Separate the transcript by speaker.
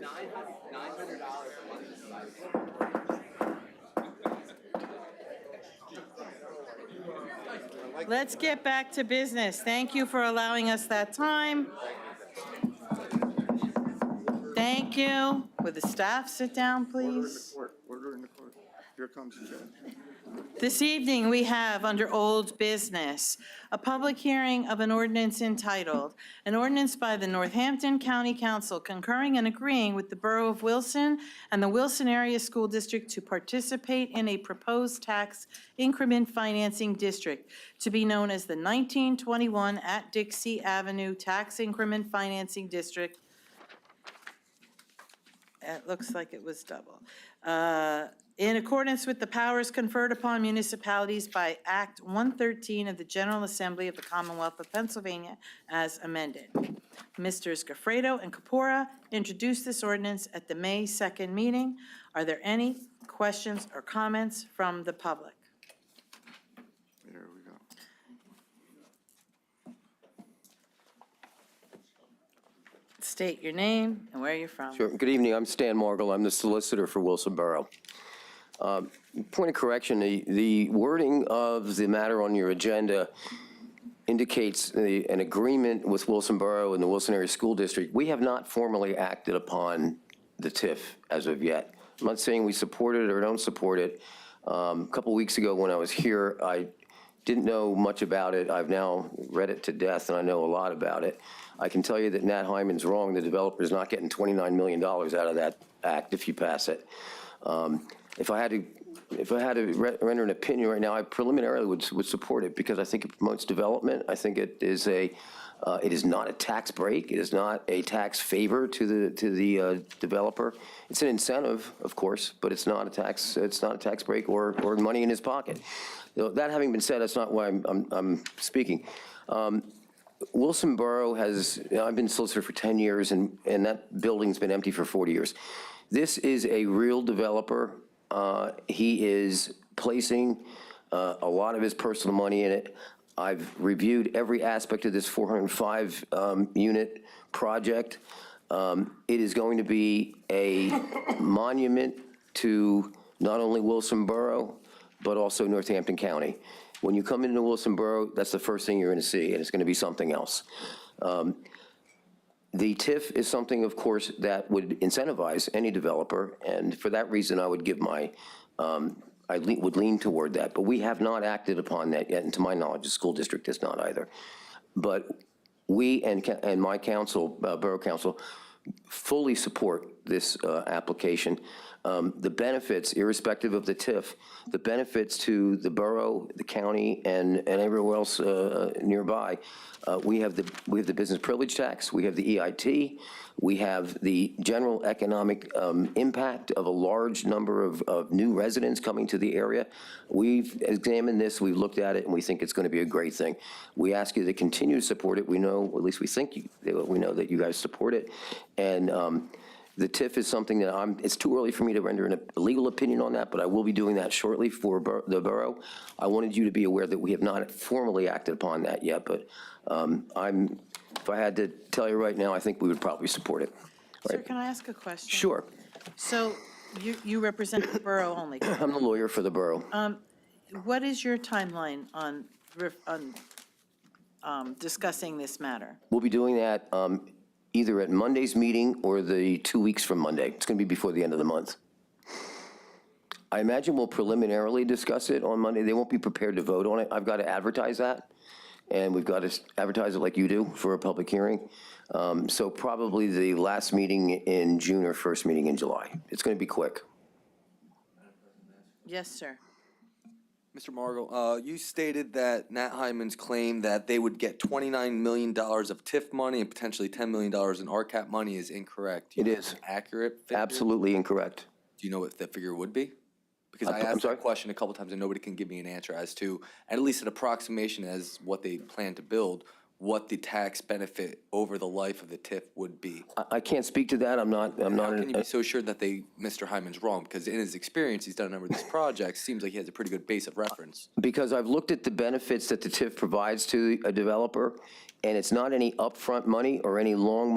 Speaker 1: nine hundred dollars a month is five.
Speaker 2: Let's get back to business. Thank you for allowing us that time. Thank you. Would the staff sit down,
Speaker 3: Order in the
Speaker 2: please?
Speaker 3: court, order in the court. Here comes the judge.
Speaker 2: This evening, we have under old business, a public hearing of an ordinance entitled, an ordinance by the Northampton County Council concurring and agreeing with the Borough of Wilson and the Wilson Area School District to participate in a proposed tax increment financing district to be known as the 1921 at Dixie Avenue Tax Increment Financing District. It looks like it was double. Uh, In accordance with the powers conferred upon municipalities by Act 113 of the General Assembly of the Commonwealth of Pennsylvania as amended. Misters Gafredo and Capora introduced this ordinance at the May 2nd meeting. Are there any questions or comments from the public?
Speaker 3: There we go.
Speaker 2: State your name and where you're from.
Speaker 4: Sure. Good evening, I'm Stan Margul, I'm the solicitor for Wilson Borough. Um, Point of correction, the- the wording of the matter on your agenda indicates the- an agreement with Wilson Borough and the Wilson Area School District. We have not formally acted upon the TIF as of yet. I'm not saying we support it or don't support it. Um, A couple weeks ago, when I was here, I didn't know much about it. I've now read it to death, and I know a lot about it. I can tell you that Nat Hyman's wrong. The developer's not getting $29 million out of that act if you pass it. Um, If I had to, if I had to re- render an opinion right now, I preliminarily would, would support it because I think it promotes development. I think it is a, uh, it is not a tax break. It is not a tax favor to the, to the uh, developer. It's an incentive, of course, but it's not a tax, it's not a tax break or, or money in his pocket. You know, That having been said, that's not why I'm, I'm, I'm speaking. Um, Wilson Borough has, I've been solicitor for 10 years, and, and that building's been empty for 40 years. This is a real developer. Uh, He is placing uh, a lot of his personal money in it. I've reviewed every aspect of this 405-unit um, project. Um, It is going to be a monument to not only Wilson Borough, but also Northampton County. When you come into Wilson Borough, that's the first thing you're going to see, and it's going to be something else. Um, The TIF is something, of course, that would incentivize any developer, and for that reason, I would give my, um, I le- would lean toward that, but we have not acted upon that yet, and to my knowledge, the school district has not either. But we and, ca- and my council, uh, Borough Council, fully support this uh, application. Um, The benefits, irrespective of the TIF, the benefits to the borough, the county, and, and everywhere else uh, nearby, uh, we have the, we have the business privilege tax, we have the EIT, we have the general economic um, impact of a large number of, of new residents coming to the area. We've examined this, we've looked at it, and we think it's going to be a great thing. We ask you to continue to support it. We know, at least we think, you- that we know that you guys support it. And um, the TIF is something that I'm, it's too early for me to render an- a legal opinion on that, but I will be doing that shortly for bor- the borough. I wanted you to be aware that we have not formally acted upon that yet, but um, I'm, if I had to tell you right now, I think we would probably support it.
Speaker 2: Sir, can I ask a question?
Speaker 4: Sure,
Speaker 2: So you, you represent the borough only.
Speaker 4: I'm the lawyer for the borough.
Speaker 2: What is your timeline on, ref- on um, discussing this matter?
Speaker 4: We'll be doing that um, either at Monday's meeting or the two weeks from Monday. It's going to be before the end of the month. I imagine we'll preliminarily discuss it on Monday. They won't be prepared to vote on it. I've got to advertise that, and we've got to advertise it like you do for a public hearing. Um, So probably the last meeting in June or first meeting in July. It's going to be quick.
Speaker 2: Yes, sir.
Speaker 1: Mr. Margot, uh, you stated that Nat Hyman's claim that they would get twenty-nine million dollars of TIF money and potentially ten million dollars in RCAP money is incorrect. Do you
Speaker 4: It
Speaker 1: know
Speaker 4: is.
Speaker 1: an Accurate? figure?
Speaker 4: Absolutely incorrect.
Speaker 1: Do you know what that figure would be? Because
Speaker 4: I'm
Speaker 1: I
Speaker 4: so- I'm
Speaker 1: asked
Speaker 4: sorry?
Speaker 1: that question a couple times and nobody can give me an answer as to, at least an approximation as what they plan to build, what the tax benefit over the life of the TIF would be.
Speaker 4: I- I can't speak to that. I'm not, I'm not.
Speaker 1: How
Speaker 4: an-
Speaker 1: can you be so sure that they, Mr. Hyman's wrong? Because in his experience, he's done a number of these projects, seems like he has a pretty good base of reference.
Speaker 4: Because I've looked at the benefits that the TIF provides to a developer, and it's not any upfront money or any long